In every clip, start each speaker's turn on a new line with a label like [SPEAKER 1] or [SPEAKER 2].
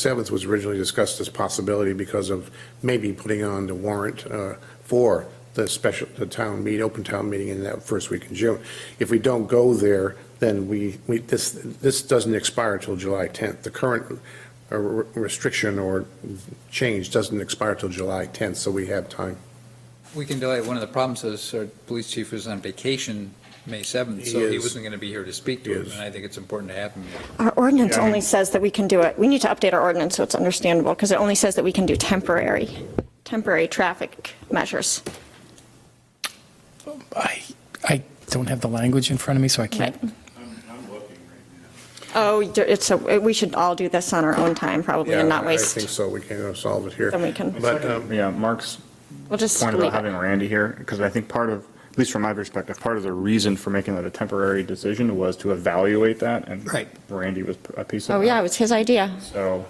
[SPEAKER 1] 7th was originally discussed as possibility because of maybe putting on the warrant uh, for the special, the town meet, open town meeting in that first week in June. If we don't go there, then we, we, this, this doesn't expire till July 10th. The current uh, re- restriction or change doesn't expire till July 10th, so we have time.
[SPEAKER 2] We can delay. One of the problems is our police chief was on vacation May 7th, so
[SPEAKER 1] He
[SPEAKER 2] he
[SPEAKER 1] is.
[SPEAKER 2] wasn't going to be here to speak
[SPEAKER 1] He
[SPEAKER 2] to him,
[SPEAKER 1] is.
[SPEAKER 2] and I think it's important to have him. here.
[SPEAKER 3] Our ordinance
[SPEAKER 1] Yeah.
[SPEAKER 3] only says that we can do it, we need to update our ordinance so it's understandable, because it only says that we can do temporary, temporary traffic measures.
[SPEAKER 4] I, I don't have the language in front of me, so I can't.
[SPEAKER 3] Oh, it's, a- we should all do this on our own time, probably,
[SPEAKER 1] Yeah,
[SPEAKER 3] and not
[SPEAKER 1] I- I think
[SPEAKER 3] waste,
[SPEAKER 1] so, we can solve it here.
[SPEAKER 3] then we can,
[SPEAKER 1] But, um,
[SPEAKER 5] Yeah, Mark's
[SPEAKER 3] we'll just
[SPEAKER 5] point about
[SPEAKER 3] leave
[SPEAKER 5] having
[SPEAKER 3] it.
[SPEAKER 5] Randy here, because I think part of, at least from my perspective, part of the reason for making that a temporary decision was to evaluate that, and
[SPEAKER 2] Right.
[SPEAKER 5] Randy was a piece of that.
[SPEAKER 3] Oh, yeah, it was his idea.
[SPEAKER 5] So,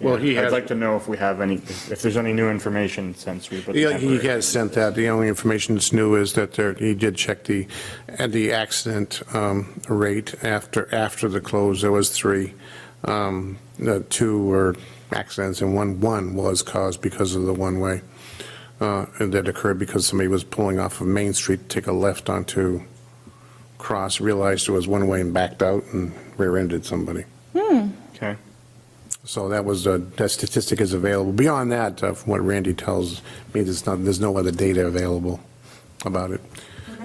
[SPEAKER 1] Well, he
[SPEAKER 5] yeah,
[SPEAKER 1] had-
[SPEAKER 5] I'd like to know if we have any, if there's any new information since we put the
[SPEAKER 1] Yeah, he
[SPEAKER 5] temporary.
[SPEAKER 1] has sent that. The only information that's new is that there, he did check the, at the accident um, rate after, after the close, there was three. Um, the Two were accidents and one, one was caused because of the one-way. uh, And that occurred because somebody was pulling off of Main Street to take a left onto Cross, realized it was one-way and backed out and rear-ended somebody.
[SPEAKER 5] Okay,
[SPEAKER 1] So that was, uh, that statistic is available. Beyond that, uh, from what Randy tells me, there's not, there's no other data available about it.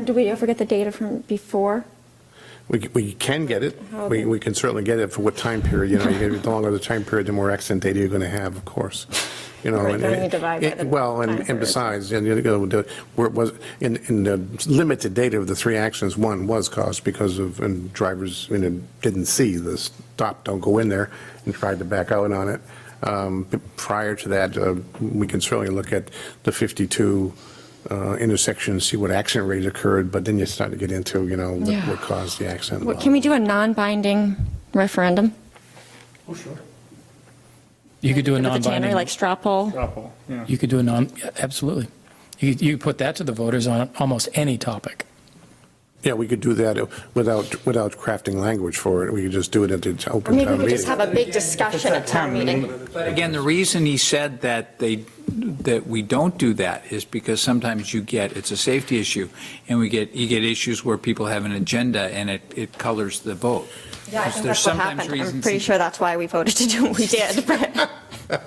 [SPEAKER 3] Did we ever get the data from before?
[SPEAKER 1] We c- we can get it.
[SPEAKER 3] Oh,
[SPEAKER 1] We we can certainly get it for what time period, you know, you get- the longer the time period, the more accident data you're going to have, of course, you know.
[SPEAKER 3] Right,
[SPEAKER 1] and-
[SPEAKER 3] then we divide by
[SPEAKER 1] and-
[SPEAKER 3] the
[SPEAKER 1] Well,
[SPEAKER 3] time
[SPEAKER 1] and and
[SPEAKER 3] period.
[SPEAKER 1] besides, and you know, the- where it was, in in the limited data of the three actions, one was caused because of, and drivers, you know, didn't see the stop, don't go in there, and tried to back out on it. Um, but Prior to that, uh, we can certainly look at the 52 uh, intersections, see what accident rate occurred, but then you start to get into, you know, what
[SPEAKER 3] Yeah.
[SPEAKER 1] what caused the accident.
[SPEAKER 3] What- Can we do a non-binding referendum?
[SPEAKER 4] You could do a
[SPEAKER 3] With the tannery,
[SPEAKER 4] non-binding,
[SPEAKER 3] Like straw poll?
[SPEAKER 5] Dropple, yeah.
[SPEAKER 4] you could do a non, yeah, absolutely. You, could- you could put that to the voters on almost any topic.
[SPEAKER 1] Yeah, we could do that without, without crafting language for it. We could just do it at the
[SPEAKER 3] Or
[SPEAKER 1] open
[SPEAKER 3] maybe we
[SPEAKER 1] town
[SPEAKER 3] could just
[SPEAKER 1] meeting.
[SPEAKER 3] have a big discussion at town meeting.
[SPEAKER 2] But again, the reason he said that they, that we don't do that is because sometimes you get, it's a safety issue, and we get, you get issues where people have an agenda and it, it colors the vote.
[SPEAKER 3] Yeah, I
[SPEAKER 2] Because there's
[SPEAKER 3] think that's what
[SPEAKER 2] sometimes
[SPEAKER 3] happened. I'm
[SPEAKER 2] reasons-
[SPEAKER 3] pretty sure that's why we voted to do what we did, but.
[SPEAKER 2] Well,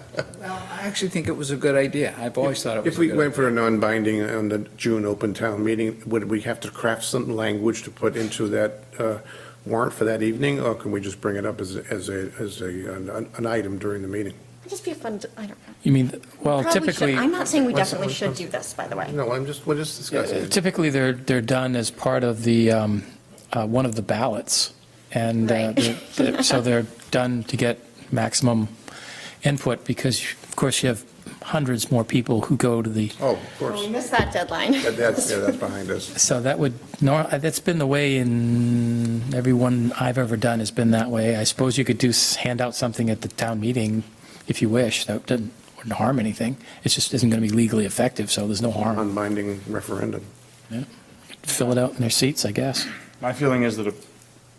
[SPEAKER 2] I actually think it was a good idea. I've always thought it
[SPEAKER 1] If
[SPEAKER 2] was a good
[SPEAKER 1] we
[SPEAKER 2] idea.
[SPEAKER 1] went for a non-binding on the June open town meeting, would we have to craft some language to put into that uh, warrant for that evening? Or can we just bring it up as, a- as a, as a, an an item during the meeting?
[SPEAKER 3] It'd just be a fun, I don't know.
[SPEAKER 4] You mean,
[SPEAKER 3] Probably
[SPEAKER 4] well,
[SPEAKER 3] should-
[SPEAKER 4] typically,
[SPEAKER 3] I'm not saying we
[SPEAKER 1] One sec-
[SPEAKER 3] definitely
[SPEAKER 1] one
[SPEAKER 3] should
[SPEAKER 1] sec-
[SPEAKER 3] do this, by the way.
[SPEAKER 1] No, I'm just, we're just discussing.
[SPEAKER 4] uh, typically they're, they're done as part of the, um, uh, one of the ballots. And uh,
[SPEAKER 3] Right.
[SPEAKER 4] they're- they're- so they're done to get maximum input because, of course, you have hundreds more people who go to the
[SPEAKER 1] Oh, of
[SPEAKER 3] We
[SPEAKER 1] course.
[SPEAKER 3] missed that deadline.
[SPEAKER 1] That- That's, yeah, that's behind us.
[SPEAKER 4] So that would, nor- that's been the way in, everyone I've ever done has been that way. I suppose you could do, s- hand out something at the town meeting if you wish, that doesn't, wouldn't harm anything. It just isn't going to be legally effective, so there's no harm.
[SPEAKER 1] Non-binding referendum.
[SPEAKER 4] Fill it out in their seats, I guess.
[SPEAKER 5] My feeling is that a,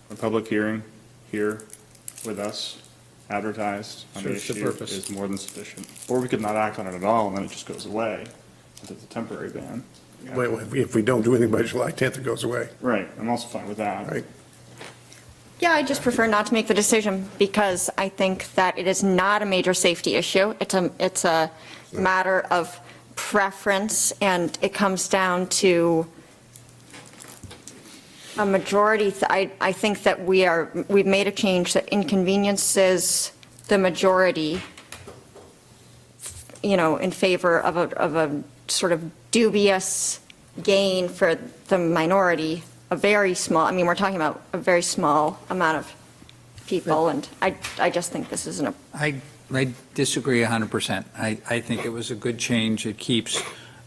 [SPEAKER 5] a public hearing here with us advertised on the
[SPEAKER 2] Serves the
[SPEAKER 5] issue
[SPEAKER 2] purpose.
[SPEAKER 5] is more than sufficient. Or we could not act on it at all, and then it just goes away, since it's a temporary ban.
[SPEAKER 1] Wait, wait, If we don't do anything by July 10th, it goes away.
[SPEAKER 5] Right, I'm also fine with that.
[SPEAKER 1] Right.
[SPEAKER 3] Yeah, I just prefer not to make the decision because I think that it is not a major safety issue. It's a, it's a matter of preference and it comes down to a majority. th- I, I think that we are, we've made a change that inconveniences the majority, you know, in favor of a, of a sort of dubious gain for the minority, a very small, I mean, we're talking about a very small amount of people, and I, I just think this isn't a,
[SPEAKER 2] I, I disagree 100%. I, I think it was a good change. It keeps,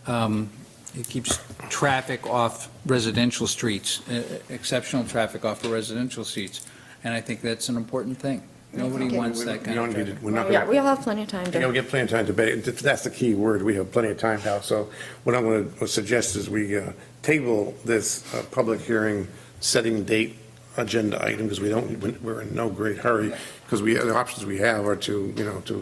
[SPEAKER 2] um, it keeps traffic off residential streets, uh, exceptional traffic off of residential streets, and I think that's an important thing. Nobody wants that
[SPEAKER 1] We
[SPEAKER 2] kind
[SPEAKER 1] don't
[SPEAKER 2] of
[SPEAKER 1] need it.
[SPEAKER 2] traffic.
[SPEAKER 1] We're not
[SPEAKER 3] yeah,
[SPEAKER 1] gonna-
[SPEAKER 3] we all have plenty of time
[SPEAKER 1] You know,
[SPEAKER 3] to,
[SPEAKER 1] we get plenty of time to debate, it. that's the key word, we have plenty of time now, so what I'm going to suggest is we uh, table this uh, public hearing, setting date, agenda item because we don't, we're in no great hurry because we, the options we have are to, you know, to